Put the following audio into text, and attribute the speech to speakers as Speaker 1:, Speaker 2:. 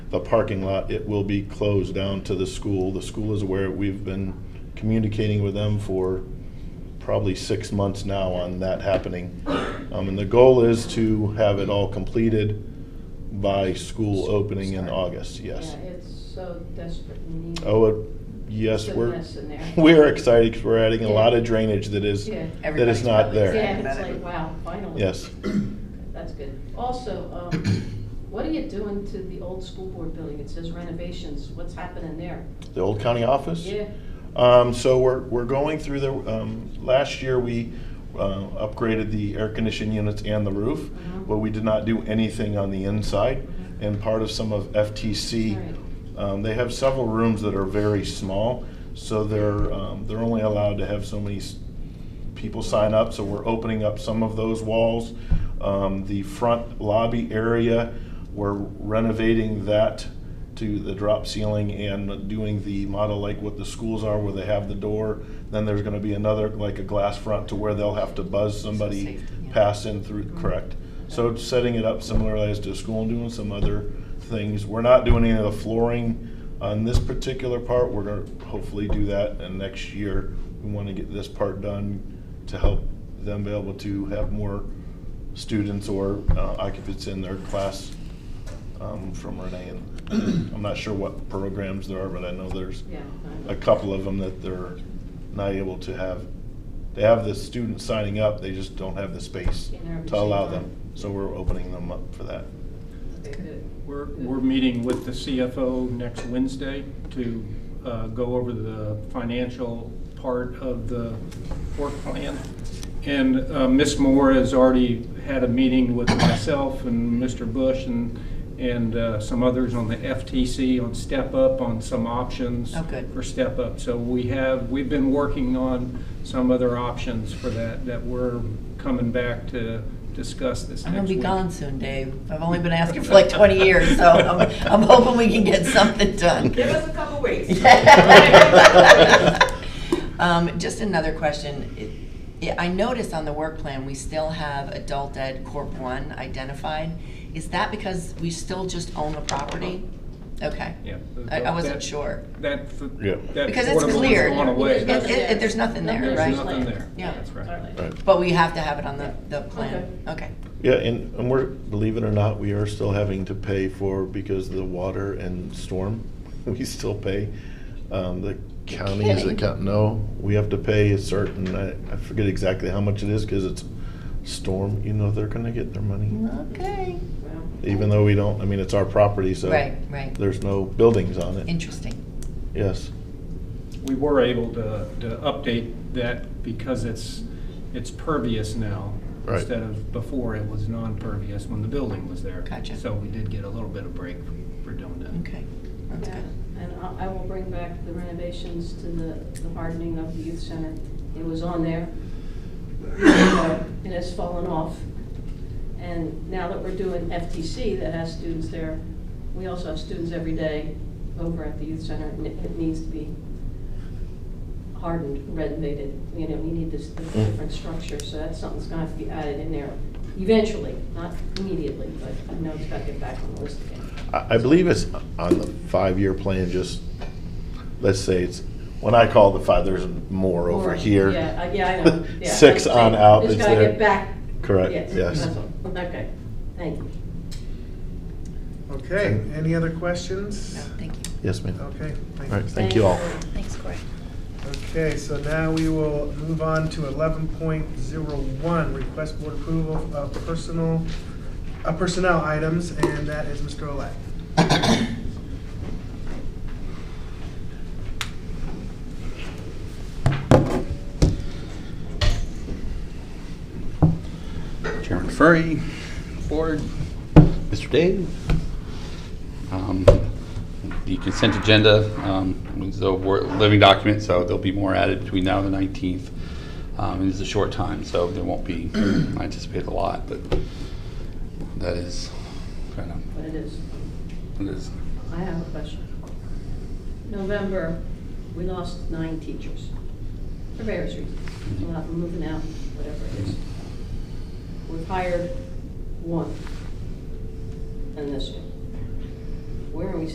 Speaker 1: the parking lot, it will be closed down to the school. The school is aware, we've been communicating with them for probably six months now on that happening. Um, and the goal is to have it all completed by school opening in August, yes.
Speaker 2: Yeah, it's so desperate and needed.
Speaker 1: Oh, it- yes,
Speaker 2: It's a
Speaker 1: we're,
Speaker 2: mess in there.
Speaker 1: we're excited because we're adding a lot of drainage that is,
Speaker 2: Yeah.
Speaker 1: that is not
Speaker 2: Yeah,
Speaker 1: there.
Speaker 2: it's like, wow, finally.
Speaker 1: Yes.
Speaker 2: That's good. Also, um, what are you doing to the old school board building? It says renovations. What's happening there?
Speaker 1: The old county office?
Speaker 2: Yeah,
Speaker 1: Um, so we're, we're going through the, um, last year we, uh, upgraded the air conditioning units and the roof,
Speaker 2: Mhm.
Speaker 1: but we did not do anything on the inside.
Speaker 2: Mhm.
Speaker 1: And part of some of FTC,
Speaker 2: Right.
Speaker 1: um, they have several rooms that are very small, so they're, um, they're only allowed to have so many s- people sign up, so we're opening up some of those walls. Um, the front lobby area, we're renovating that to the drop ceiling and doing the model like what the schools are where they have the door. Then there's gonna be another, like a glass front to where they'll have to buzz somebody
Speaker 3: safety, yeah.
Speaker 1: pass in through, correct. So it's setting it up similarly as to a school and doing some other things. We're not doing any of the flooring on this particular part. We're gonna hopefully do that and next year we wanna get this part done to help them be able to have more students or uh, occupants in their class um, from Renee. And I'm not sure what programs there are, but I know there's
Speaker 2: yeah.
Speaker 1: a couple of them that they're not able to have. They have the students signing up, they just don't have the space
Speaker 2: In their
Speaker 1: to allow
Speaker 2: machine.
Speaker 1: them. So we're opening them up for that.
Speaker 2: Very good.
Speaker 4: We're, we're meeting with the CFO next Wednesday to uh, go over the financial part of the work plan. And uh, Ms. Moore has already had a meeting with myself and Mr. Bush and, and uh, some others on the FTC on step up, on some options.
Speaker 3: Oh, good.
Speaker 4: For step up. So we have, we've been working on some other options for that, that we're coming back to discuss this next
Speaker 3: I'm
Speaker 4: week.
Speaker 3: gonna be gone soon, Dave. I've only been asking for like 20 years, so I'm, I'm hoping we can get something done.
Speaker 5: Give us a couple weeks.
Speaker 3: Um, just another question. It- yeah, I noticed on the work plan, we still have adult ed corp one identified. Is that because we still just own the property? Okay.
Speaker 4: Yeah.
Speaker 3: I, I wasn't
Speaker 4: That-
Speaker 3: sure.
Speaker 4: That, f-
Speaker 1: Yeah.
Speaker 4: that
Speaker 3: Because it's
Speaker 4: portable is
Speaker 3: clear.
Speaker 4: going away.
Speaker 3: It- it- it- there's nothing there,
Speaker 4: There's
Speaker 3: right?
Speaker 4: nothing there.
Speaker 3: Yeah.
Speaker 4: That's right.
Speaker 1: Right.
Speaker 3: But we have to have it on the, the plan. Okay.
Speaker 1: Yeah, and, and we're, believe it or not, we are still having to pay for, because of the water and storm, we still pay. Um, the county is
Speaker 3: kidding.
Speaker 1: account, no, we have to pay a certain, I, I forget exactly how much it is, cause it's storm, you know, they're gonna get their
Speaker 3: Mm-hmm.
Speaker 1: money.
Speaker 3: Okay.
Speaker 2: Well,
Speaker 1: Even though we don't, I mean, it's our property, so.
Speaker 3: Right, right.
Speaker 1: There's no buildings on it,
Speaker 3: Interesting.
Speaker 1: yes.
Speaker 4: We were able to, to update that because it's, it's pervious now.
Speaker 1: Right.
Speaker 4: Instead of before, it was non-pervious when the building was there.
Speaker 3: Gotcha.
Speaker 4: So we did get a little bit of break for doing that.
Speaker 3: Okay. That's
Speaker 2: yeah,
Speaker 3: good.
Speaker 2: And I I will bring back the renovations to the the hardening of the youth center. It was on there. It has fallen off. And now that we're doing FTC that has students there, we also have students every day over at the youth center. and It it needs to be hardened, renovated, you know, we need this this
Speaker 3: Mm.
Speaker 2: different structure. So that's something that's gonna have to be added in there eventually, not immediately, but I know it's gotta get back on the list again.
Speaker 1: I, I believe it's on the five-year plan, just, let's say it's, when I call the five, there's more over
Speaker 2: Or-
Speaker 1: here.
Speaker 2: Yeah, I- yeah, I know. Yeah,
Speaker 1: Six
Speaker 2: that's what I'm
Speaker 1: on out
Speaker 2: saying.
Speaker 1: is
Speaker 2: Just gotta
Speaker 1: there.
Speaker 2: get back.
Speaker 1: Correct, yes.
Speaker 2: that's all. Okay, thank you.
Speaker 6: Okay, any other questions?
Speaker 3: No, thank you.
Speaker 1: Yes, ma'am. All
Speaker 6: Okay, thank
Speaker 1: right,
Speaker 6: you.
Speaker 1: thank you all.
Speaker 3: Thanks, Corey.
Speaker 6: Okay, so now we will move on to eleven point zero one, request board approval of personal, uh, personnel items, and that is Mr. Olet.
Speaker 7: Chairman Furry, Board, Mr. Dave. Um, The consent agenda um, is a wor- living document, so there'll be more added between now and the 19th. Um, It is a short time, so there won't be, I anticipate a lot, but that is kind of,
Speaker 2: But it is,
Speaker 7: it is
Speaker 2: I have a question. November, we lost nine teachers for various reasons. We're not moving out, whatever it is. We've hired one in this year. where are we